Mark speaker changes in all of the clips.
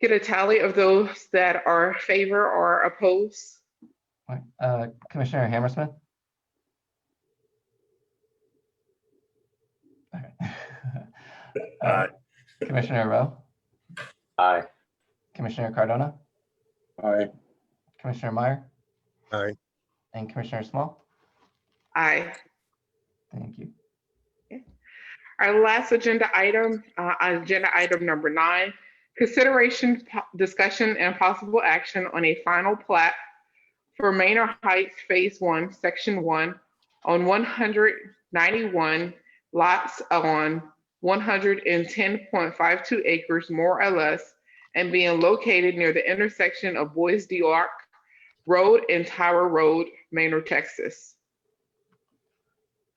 Speaker 1: get a tally of those that are favor or oppose?
Speaker 2: Right, uh, Commissioner Hammersmith? Okay. Uh,
Speaker 3: Aye.
Speaker 2: Commissioner Rowe,
Speaker 4: Aye.
Speaker 2: Commissioner Cardona,
Speaker 4: Aye.
Speaker 2: Commissioner Meyer?
Speaker 3: Aye.
Speaker 2: And Commissioner Small?
Speaker 1: Aye.
Speaker 2: Thank you.
Speaker 1: Our last agenda item, uh, agenda item number nine, consideration, po- discussion, and possible action on a final plat for Manor Heights Phase One, Section One, on one hundred ninety-one lots on one hundred and ten point five two acres, more or less, and being located near the intersection of Boys D. Arc Road and Tower Road, Manor, Texas.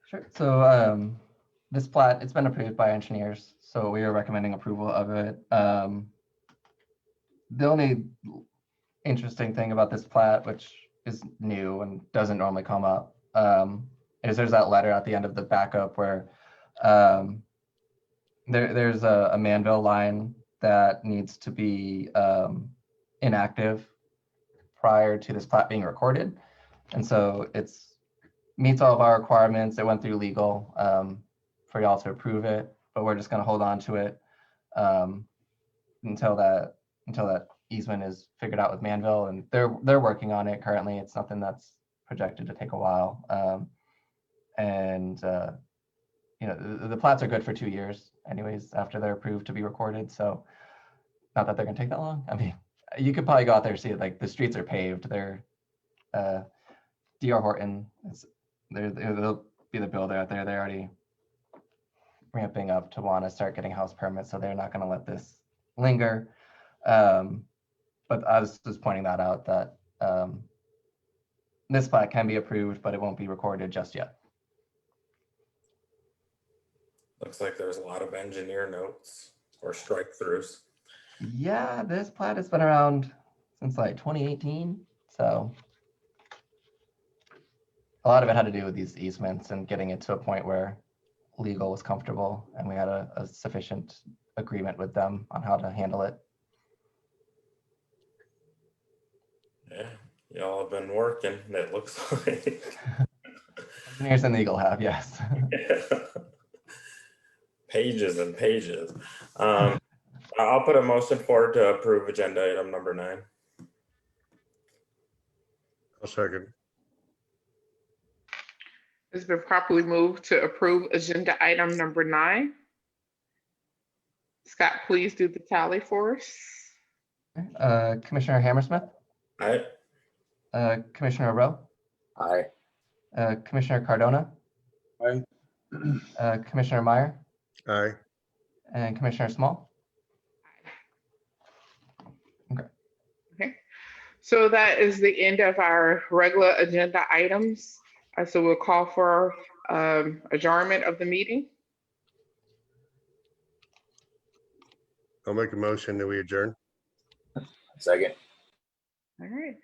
Speaker 2: Sure, so, um, this plat, it's been approved by engineers, so we are recommending approval of it. Um, the only interesting thing about this plat, which is new and doesn't normally come up, um, is there's that letter at the end of the backup where, um, there, there's a, a Manville line that needs to be, um, inactive prior to this plat being recorded. And so it's, meets all of our requirements. It went through legal, um, for y'all to approve it, but we're just gonna hold on to it, um, until that, until that easement is figured out with Manville, and they're, they're working on it currently. It's something that's projected to take a while. Um, and, uh, you know, the, the plats are good for two years anyways, after they're approved to be recorded, so not that they're gonna take that long. I mean, you could probably go out there and see it, like, the streets are paved, they're, uh, D.R. Horton is, they're, they're- they'll be the builder out there. They're already ramping up to want to start getting house permits, so they're not going to let this linger. Um, but I was just pointing that out that um, this plat can be approved, but it won't be recorded just yet.
Speaker 5: Looks like there's a lot of engineer notes or strike throughs.
Speaker 2: Yeah, this plat has been around since like 2018, so a lot of it had to do with these easements and getting it to a point where legal was comfortable and we had a, a sufficient agreement with them on how to handle it.
Speaker 5: Yeah, y'all have been working, it looks like.
Speaker 2: Engineers and legal have, yes.
Speaker 5: Pages and pages. Um, I- I'll put a motion forward to approve agenda item number nine.
Speaker 3: I'll second.
Speaker 1: It's been properly moved to approve agenda item number nine. Scott, please do the tally for us.
Speaker 2: Uh, Commissioner Hammersmith,
Speaker 5: I,
Speaker 2: uh, Commissioner Rowe,
Speaker 4: Aye.
Speaker 2: uh, Commissioner Cardona,
Speaker 4: Aye.
Speaker 2: uh, Commissioner Meyer,
Speaker 3: Aye.
Speaker 2: and Commissioner Small.
Speaker 1: So that is the end of our regular agenda items. Uh, So we'll call for um, adjournment of the meeting.
Speaker 3: I'll make a motion that we adjourn.
Speaker 4: Second.
Speaker 1: All right.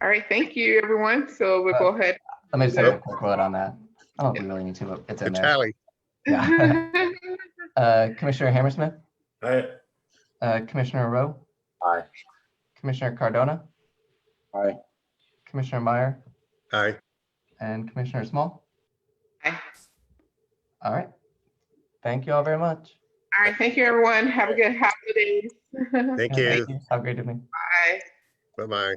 Speaker 1: All right, thank you, everyone. So we'll go ahead.
Speaker 2: Let me just say a quick word on that. I don't think we really need to, but it's in
Speaker 3: Good
Speaker 2: there.
Speaker 3: tally.
Speaker 2: Yeah. Uh, Commissioner Hammersmith,
Speaker 5: I,
Speaker 2: uh, Commissioner Rowe,
Speaker 4: Aye.
Speaker 2: Commissioner Cardona,
Speaker 4: Aye.
Speaker 2: Commissioner Meyer,
Speaker 3: Aye.
Speaker 2: and Commissioner Small.
Speaker 1: Aye.
Speaker 2: All right. Thank you all very much.
Speaker 1: All right, thank you, everyone. Have a good holidays.
Speaker 3: Thank
Speaker 2: Yeah,
Speaker 3: you.
Speaker 2: Have a great evening.
Speaker 1: Bye.
Speaker 3: Bye-bye.